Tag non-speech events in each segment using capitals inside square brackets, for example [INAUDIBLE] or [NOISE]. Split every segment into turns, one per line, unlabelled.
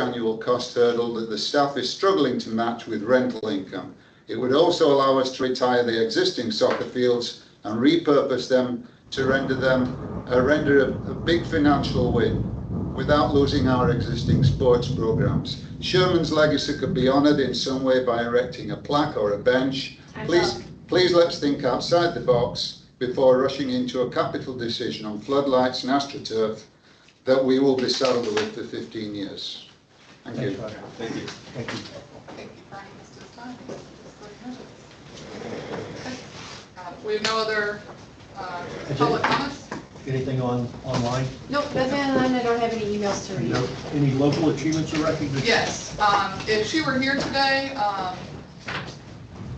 annual cost hurdle that the staff is struggling to match with rental income. It would also allow us to retire the existing soccer fields and repurpose them to render them uh, render a, a big financial win without losing our existing sports programs. Sherman's legacy could be honoured in some way by erecting a plaque or a bench.
I
Please,
love-
please let's think outside the box before rushing into a capital decision on floodlights and astroturf that we will be saddled with for 15 years. Thank you.
Thank you.
Thank you.
Thank you, Brian, It's just fine. It's good news. Okay. Uh, We have no other uh, public comments?
Anything on, online?
Nope, nothing online, I don't have any emails to read.
Any local achievements or recognition?
Yes, um, if she were here today, um,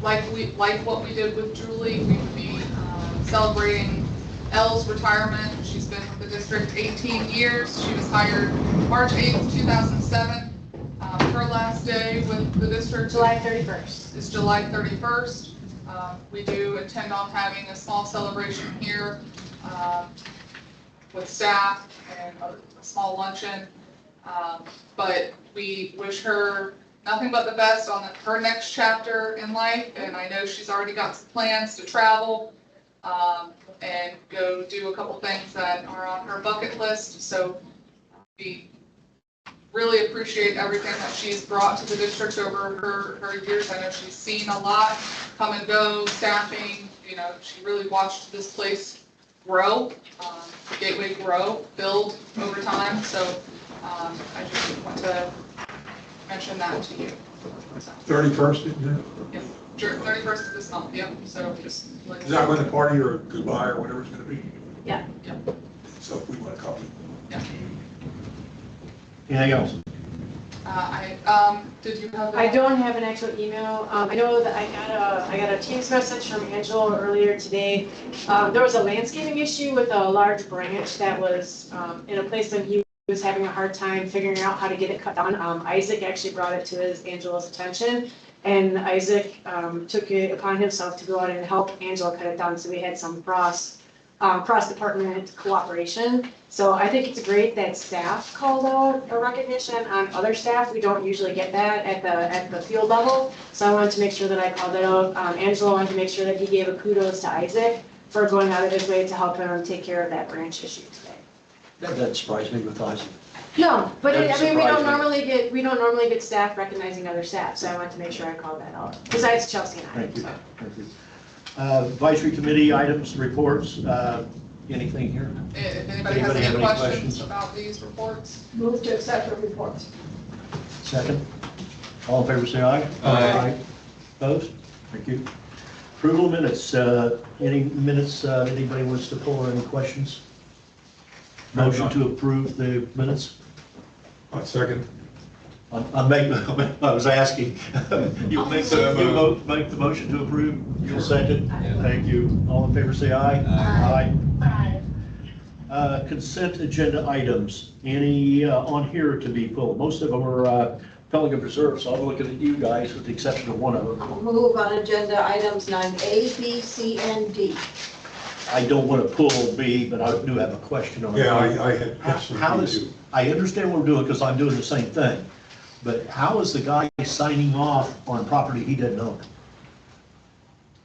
like we, like what we did with Julie, we would be um, celebrating Elle's retirement. She's been with the district 18 years. She was hired March 8th, 2007. Uh, Her last day with the district.
July 31st.
is July 31st. Um, We do intend on having a small celebration here um, with staff and a a small luncheon. Um, But we wish her nothing but the best on her next chapter in life, and I know she's already got some plans to travel um, and go do a couple things that are on her bucket list, so we really appreciate everything that she's brought to the district over her, her years. I know she's seen a lot come and go, staffing, you know, she really watched this place grow, um, Gateway grow, build over time, so, um, I just want to mention that to you.
Thirty-first, isn't
Thirty-first of this month, yep, so just. like I
it?
said.
Is that when the party or goodbye or whatever it's gonna be?
Yeah.
Yeah.
So if we want to copy.
Anything else?
Uh, I, um, did you have?
I don't have an actual email. Um, I know that I got a, I got a Teams message from Angela earlier today. Um, there was a landscaping issue with a large branch that was, um, in a place that he was having a hard time figuring out how to get it cut down. Um, Isaac actually brought it to his, Angela's attention. And Isaac, um, took it upon himself to go out and help Angela cut it down, so we had some cross, um, cross-department cooperation. So I think it's great that staff called out a recognition on other staff. We don't usually get that at the, at the field level. So I wanted to make sure that I called that out. Um, Angelo wanted to make sure that he gave a kudos to Isaac for going out of his way to help him take care of that branch issue today.
That that surprised me with Isaac.
No, but it- I
That
mean, we don't
surprised me.
normally get, we don't normally get staff recognizing other staff, so I wanted to make sure I called that out, besides Chelsea and I.
Thank you. Thank you. Uh, Advisory committee items, reports, uh, anything here?
eh, If anybody has
Anybody have
any
any
questions
questions?
about these reports?
Move to accept the reports.
Second? All in favor, say aye.
Aye.
Opposed? Thank you. Approval of minutes, uh, any minutes, uh, anybody wants to pull or any questions? Motion to approve the minutes?
On second.
I I make, [LAUGHS] I was asking, [LAUGHS] you make, the- you mo- make the motion to approve, you'll second? Thank you. All in favor, say aye. Aye.
Aye.
Uh, Consent agenda items, any uh, on here to be pulled? Most of them are uh, Pelican Preserve, so I'm looking at you guys with the exception of one of them.
Move on agenda items nine A, B, C, and D.
I don't want to pull B, but I do have a question on it.
Yeah, I, I had.
How- How is, I understand what we're doing because I'm doing the same thing, but how is the guy signing off on property he doesn't own?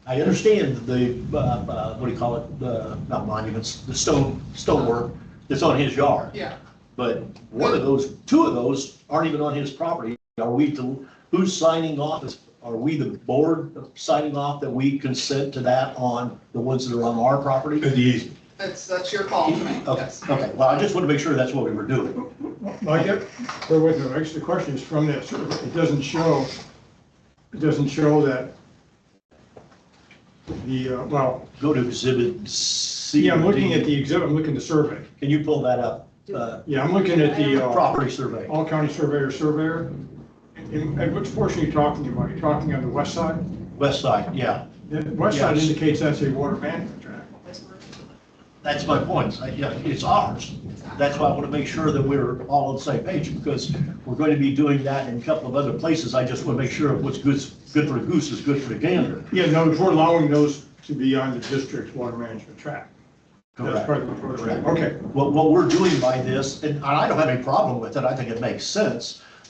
I understand the, uh, uh, what do you call it, uh, not monuments, the stone, stonework that's on his yard.
Yeah,
But one of those, two of those aren't even on his property. Are we, to- who's signing off? Is- Are we the board signing off that we consent to that on the ones that are on our property?
In the easement.
that's, that's your call to make,
Okay, Oh.
yes.
okay, well, I just want to make sure that's what we were doing.
Mike, there was, actually, the question is from that survey, it doesn't show, it doesn't show that the, uh, well,
Go to exhibit C.
yeah, I'm looking
D.
at the exhibit, I'm looking at the survey.
Can you pull that up? Uh,
Yeah, I'm looking at the uh,
Property survey.
all county surveyor surveyor. And and which portion are you talking about? You're talking on the west side?
West side, yeah.
The west side
Yes.
indicates that's a water management tract.
That's my point. I- yeah, It's ours. That's why I want to make sure that we're all on the same page because we're going to be doing that in a couple of other places. I just want to make sure what's good, good for the goose is good for the gander.
Yeah, no, we're allowing those to be on the district's water management tract. That's
Correct.
part of the program.
Correct.
Okay,
What, what we're doing by this, and I don't have any problem with it, I think it makes sense,